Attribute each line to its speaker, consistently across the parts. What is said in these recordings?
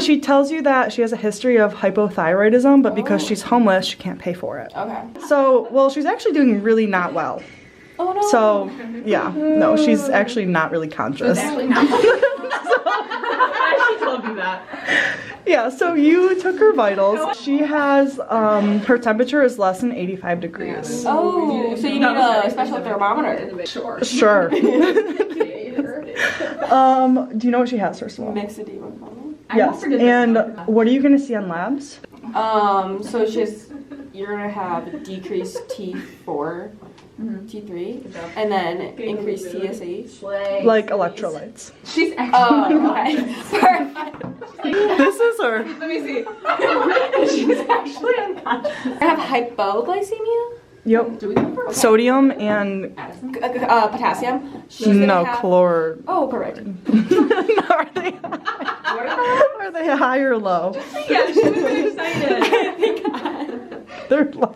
Speaker 1: she tells you that she has a history of hypothyroidism, but because
Speaker 2: Oh.
Speaker 1: she's homeless, she can't pay for it.
Speaker 2: Okay.
Speaker 1: So, well, she's actually doing really not well.
Speaker 2: Oh no.
Speaker 1: So, yeah, no, she's actually not really conscious.
Speaker 2: Actually, no.
Speaker 3: I told you that.
Speaker 1: Yeah, so you took her vitals. She has, um, her temperature is less than 85 degrees.
Speaker 2: Oh, so you need a special thermometer.
Speaker 3: Sure.
Speaker 1: Sure. um, do you know what she has, first of all?
Speaker 2: Mix a demon phone.
Speaker 3: I
Speaker 1: Yes.
Speaker 3: won't forget this
Speaker 1: And
Speaker 2: uh,
Speaker 3: one.
Speaker 1: what are you going to see on labs?
Speaker 2: Um, so it's just you're gonna have decreased T4, Mm-hmm. T3, and then increased TSH.
Speaker 1: Like electrolytes.
Speaker 3: She's actually.
Speaker 2: Oh, okay. Perfect.
Speaker 1: This is her.
Speaker 3: Let me see.
Speaker 2: She's actually unconscious. I have hypoglycemia,
Speaker 1: Yep.
Speaker 3: Do we go for
Speaker 1: Sodium and
Speaker 4: Mm-hmm.
Speaker 2: G- g- uh, potassium. She's gonna
Speaker 1: no
Speaker 2: have-
Speaker 1: chlor.
Speaker 2: Oh, correct.
Speaker 1: are they? Are they high or low?
Speaker 3: Yeah, she was excited.
Speaker 1: They're low.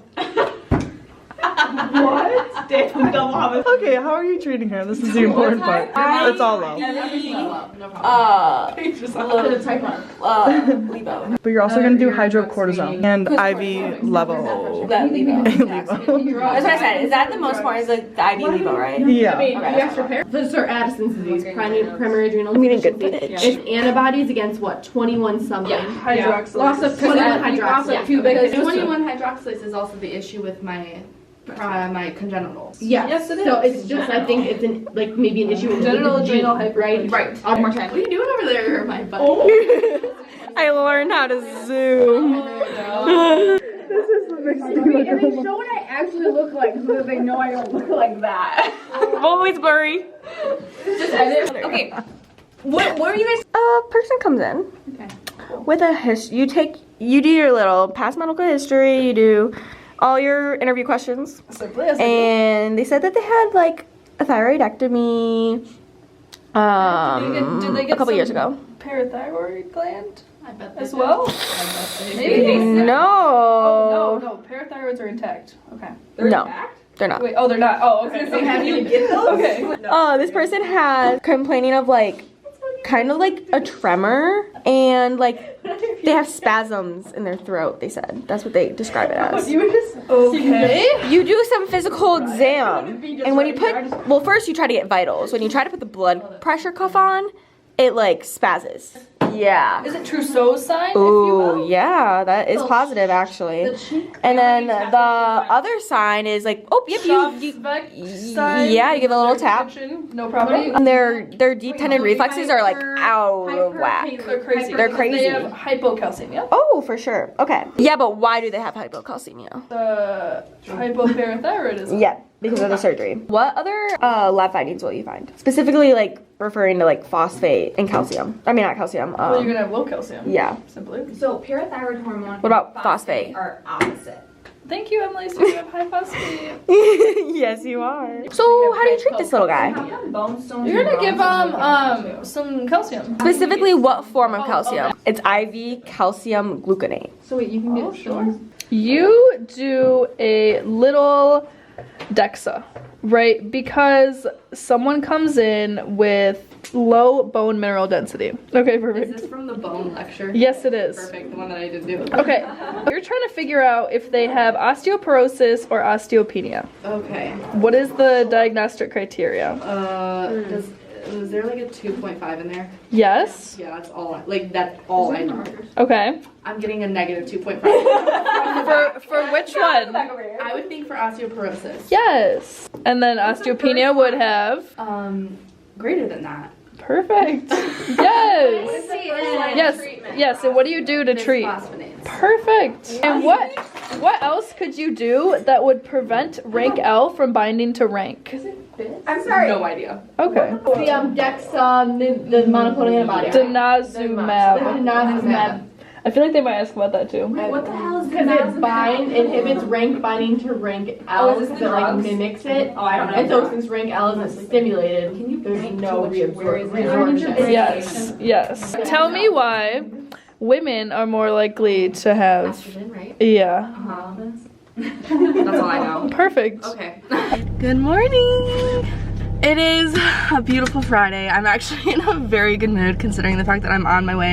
Speaker 3: what? Damn, double homicide.
Speaker 1: Okay, how are you treating her? This is the important part. It's all low.
Speaker 2: Uh,
Speaker 3: Just type on.
Speaker 2: uh, Lebo.
Speaker 1: But you're also going to do hydrocortisone and IV level.
Speaker 2: That Lebo.
Speaker 1: Levo.
Speaker 2: That's what I said. Is that the most important? Is like the IV Lebo, right?
Speaker 1: yeah.
Speaker 5: This is our Addison's disease, primary, primary adrenal
Speaker 1: We didn't get
Speaker 5: deficiency. It's antibodies against what? 21 something.
Speaker 4: Hydroxylase. Loss of
Speaker 5: 21 hydroxylase.
Speaker 4: Yeah, because 21 hydroxylase is also the issue with my uh, my congenitals.
Speaker 5: Yeah.
Speaker 3: Yes, it is.
Speaker 5: So it's just, I think it's an, like maybe an issue with
Speaker 3: Genital adrenal
Speaker 5: hypertension, right?
Speaker 4: Right.
Speaker 5: Um,
Speaker 4: What are you doing over there, my butt?
Speaker 1: I learned how to zoom.
Speaker 2: Uh,
Speaker 1: This is the mixed
Speaker 6: Show what I actually look like so that they know I don't look like that.
Speaker 2: Always blurry. okay. What, what are you guys? A person comes in with a his. You take you do your little past medical history. You do all your interview questions, and they said that they had like a thyroidectomy. Um,
Speaker 3: did they get
Speaker 2: a couple
Speaker 3: some-
Speaker 2: years ago.
Speaker 3: Parathyroid gland
Speaker 4: I bet
Speaker 3: as well?
Speaker 2: No.
Speaker 3: Oh, no, no. Parathyroids are intact. Okay.
Speaker 2: No, they're not.
Speaker 3: Wait, oh, they're not. Oh, okay. So how do you get those? Okay.
Speaker 2: Oh, this person has complaining of like kind of like a tremor and like they have spasms in their throat, they said. That's what they describe it as.
Speaker 3: Okay.
Speaker 2: You do some physical exam. And when you put well, first you try to get vitals. When you try to put the blood pressure cuff on, it like spasms. Yeah.
Speaker 3: Is it Trousseau's sign,
Speaker 2: Ooh, yeah, that is positive actually. And then the other sign is like, oh, yep, you,
Speaker 3: if
Speaker 2: you
Speaker 3: you will?
Speaker 2: yeah, you give a little tap.
Speaker 3: No problem.
Speaker 2: And their their deep tendon reflexes are like out of whack.
Speaker 3: They're crazy.
Speaker 2: They're
Speaker 3: They
Speaker 2: crazy.
Speaker 3: have hypocalcemia.
Speaker 2: Oh, for sure. Okay. Yeah, but why do they have hypocalcemia?
Speaker 3: Uh, hypoparathyroidism.
Speaker 2: Yeah, because of the surgery. What other uh, lab findings will you find? Specifically, like referring to like phosphate and calcium. I mean, not calcium.
Speaker 3: Well, you're
Speaker 2: Um,
Speaker 3: gonna have low calcium.
Speaker 2: yeah.
Speaker 3: Simply.
Speaker 7: So parathyroid hormone.
Speaker 2: What about
Speaker 7: and
Speaker 2: phosphate?
Speaker 7: Are opposite.
Speaker 3: Thank you, Emily. So you have high phosphate.
Speaker 2: yes, you are. So, how do you treat this little guy?
Speaker 7: Bone stones.
Speaker 3: You're gonna
Speaker 7: and
Speaker 3: give
Speaker 7: bronchs.
Speaker 3: um um some calcium.
Speaker 2: Specifically, what form of
Speaker 3: Oh,
Speaker 2: calcium? It's IV calcium gluconate.
Speaker 3: So wait, you can
Speaker 5: Oh,
Speaker 3: get sure.
Speaker 8: You do a little DEXA, right? Because someone comes in with low bone mineral density. Okay, perfect.
Speaker 4: Is this from the bone lecture?
Speaker 8: Yes, it is.
Speaker 4: Perfect, the one that I didn't do.
Speaker 8: Okay, you're trying to figure out if they have osteoporosis or osteopenia.
Speaker 4: Okay.
Speaker 8: What is the diagnostic criteria?
Speaker 4: Uh,
Speaker 5: Hmm.
Speaker 4: does, is there like a 2.5 in there?
Speaker 8: Yes.
Speaker 4: Yeah, that's all. I, like that's all I know.
Speaker 8: Okay.
Speaker 4: I'm getting a negative 2.5.
Speaker 8: For for which one?
Speaker 4: I would think for osteoporosis.
Speaker 8: Yes. And then osteopenia would have
Speaker 4: Um, greater than that.
Speaker 8: perfect. Yes. Yes. Yes. And what do you do to treat?
Speaker 4: Bisphosphonates.
Speaker 8: Perfect. And what what else could you do that would prevent rank L from binding to rank?
Speaker 5: I'm sorry.
Speaker 4: No idea.
Speaker 8: Okay.
Speaker 5: The um, Dexa, the, the monoclonal antibody.
Speaker 8: Denazumab.
Speaker 5: Denazinumab.
Speaker 8: I feel like they might ask about that too.
Speaker 5: What the hell is Because it bind, inhibits rank binding to rank L, because it like mimics it. Oh, I don't know. And so since rank L isn't stimulated, there's no reabsorption.
Speaker 8: Yes. Yes. Tell me why women are more likely to have
Speaker 4: Estrogen, right?
Speaker 8: yeah.
Speaker 4: Uh-huh. That's all I know.
Speaker 8: Perfect.
Speaker 4: Okay.
Speaker 8: Good morning. It is a beautiful Friday. I'm actually in a very good mood considering the fact that I'm on my way